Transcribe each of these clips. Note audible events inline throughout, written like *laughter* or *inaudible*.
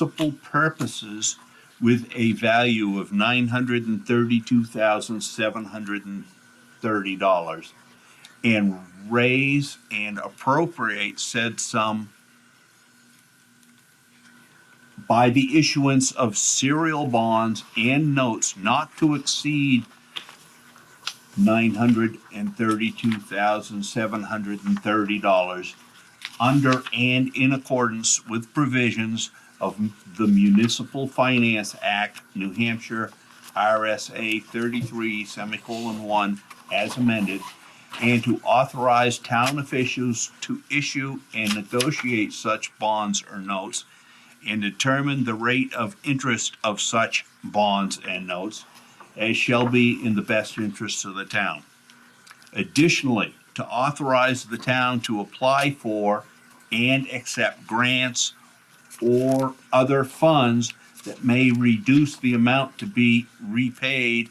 municipal purposes with a value of nine hundred and thirty-two thousand, seven hundred and thirty dollars. And raise and appropriate said sum by the issuance of serial bonds and notes not to exceed nine hundred and thirty-two thousand, seven hundred and thirty dollars under and in accordance with provisions of the Municipal Finance Act, New Hampshire, RSA thirty-three semicolon one, as amended, and to authorize town officials to issue and negotiate such bonds or notes and determine the rate of interest of such bonds and notes as shall be in the best interests of the town. Additionally, to authorize the town to apply for and accept grants or other funds that may reduce the amount to be repaid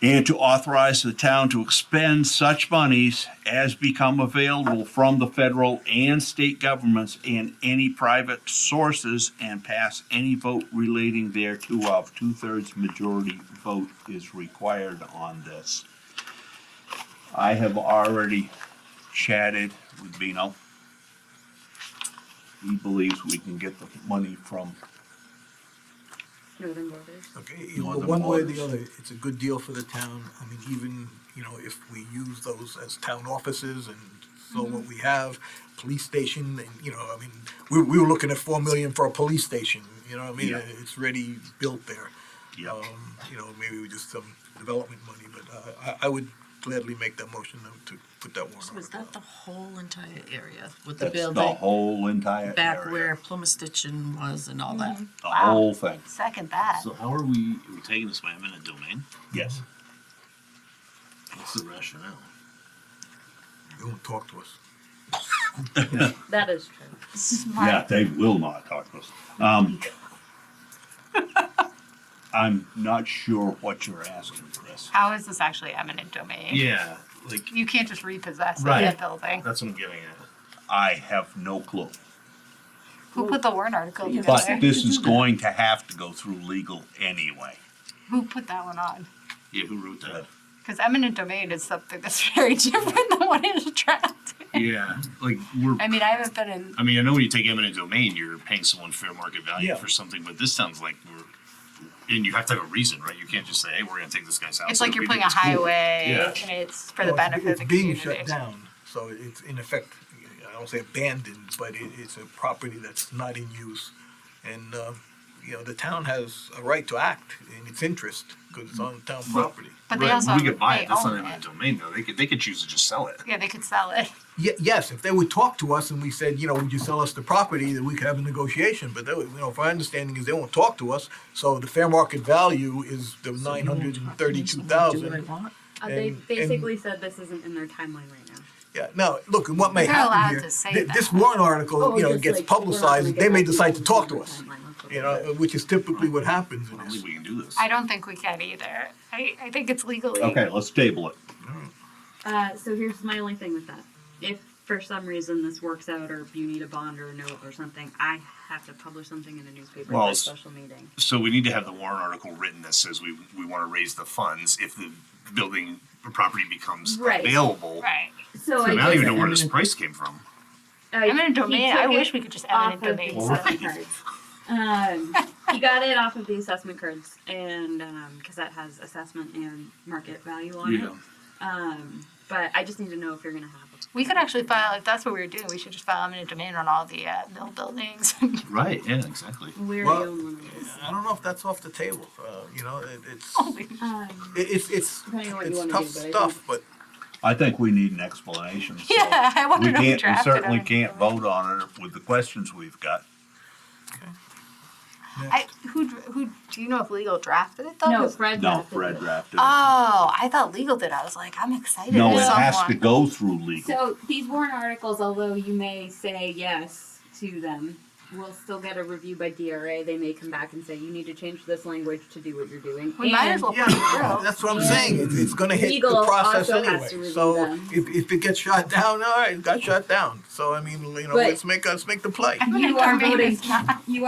and to authorize the town to expend such monies as become available from the federal and state governments and any private sources and pass any vote relating thereto of two-thirds majority vote is required on this. I have already chatted with Bino. He believes we can get the money from, Northern Waters. Okay, you know, Northern one way or the Waters. other, it's a good deal for the town. I mean, even, you know, if we use those as town offices and so what we have, police station, and, you know, I mean, we, we were looking at four million for a police station, you know what I mean? Yeah. It's ready, built there. Yep. Um, You know, maybe with just some development money, but uh, I, I would gladly make that motion to to put that warrant Was article. that the whole entire area with the that's the building whole entire back where area, Plymouth Stitchin was and all that? the whole thing, Second that. So how are we, are we taking this by eminent domain? yes. What's the rationale? They won't talk to us. That is true. Yeah, they will not talk to us. Um, I'm not sure what you're asking, Chris. How is this actually eminent domain? Yeah, like, You can't just repossess Right. that building. that's what I'm getting at. I have no clue. Who put the warrant article Yeah. But together? this is going to have to go through legal anyway. Who put that one on? Yeah, who wrote that? Because eminent domain is something that's *laughs* very different than what is attractive. Yeah, like, we're, I mean, I haven't been in. I mean, I know when you take eminent domain, you're paying someone fair market value Yeah. for something, but this sounds like we're, and you have to have a reason, right? You can't just say, hey, we're gonna take this guy's house. It's like that you're we putting a think is cool." highway, Yeah. and it's for the Well, it's- benefit of the It's being shut community. down, so it's in effect, I don't say abandoned, but it, it's a property that's not in use. And, uh, you know, the town has a right to act in its interest, because it's on town property. But they Right, also We could buy they it, that's not own eminent it. domain though, they could, they could choose to just sell it. Yeah, they could sell it. Ye- yes, if they would talk to us and we said, you know, would you sell us the property, then we could have a negotiation, but they, would- you know, if our understanding is they won't talk to us, so the fair market value is the nine hundred and thirty-two Do what I thousand. want? Uh, they And- basically said this isn't in their timeline right now. Yeah, now, look, and what may They're happen allowed here, to say thi- that. Oh, this warrant article, you know, Oh, just gets like, we're not gonna publicized, get they may back decide to you talk in to your us. timeline, let's look you at know, it. which is typically what happens I in don't this. think we can do this. I don't think we can either. I, I think it's legally. Okay, let's table it. Uh, so here's my only thing with that. If for some reason this works out or you need a bond or a note or something, I have to publish something in a newspaper Well, by it's- special meeting. So we need to have the warrant article written that says we, we wanna raise the funds if the building or property becomes Right. available. Right. So I I don't just- even know where this price came from. uh, Eminent he domain. took I it wish we could just off eminent of the domain. Well, *laughs* assessment cards. Um, he got it off of the assessment cards and, um 'cause cause that has assessment and market value on it. Um, but I just need to know if you're gonna have it. We could actually file, if that's what we were doing, we should just file eminent domain on all the uh, mill buildings. *laughs* Right, yeah, exactly. We already Well- own one of those. I don't know if that's off the table, uh, you know, it, it's, Oh Um, it- it's, it's, Depending on what you it's wanna tough do, but I stuff, but I think we need an explanation, so. *laughs* Yeah, I We wondered if we can't, we drafted certainly eminent can't domain. vote on it with the questions we've got. I, who, dr- who, do you know if legal drafted it though? No, 'Cause- Fred. No, drafted Fred it. drafted it. Oh, I thought legal did. I was like, I'm excited. No, for it has to someone. go through legal. So these warrant articles, although you may say yes to them, we'll still get a review by DRA. They may come back and say, you need to change this language to do what you're doing. We might And- as well put it Yeah, through. that's what I'm saying, it's, it's gonna hit the Oh, Legal process also has to anyway, review so them. if, if it gets shot *laughs* down, all right, it got shot down, so I mean, you know, But- let's make, us make the play. I'm gonna You are convey voting- this now. You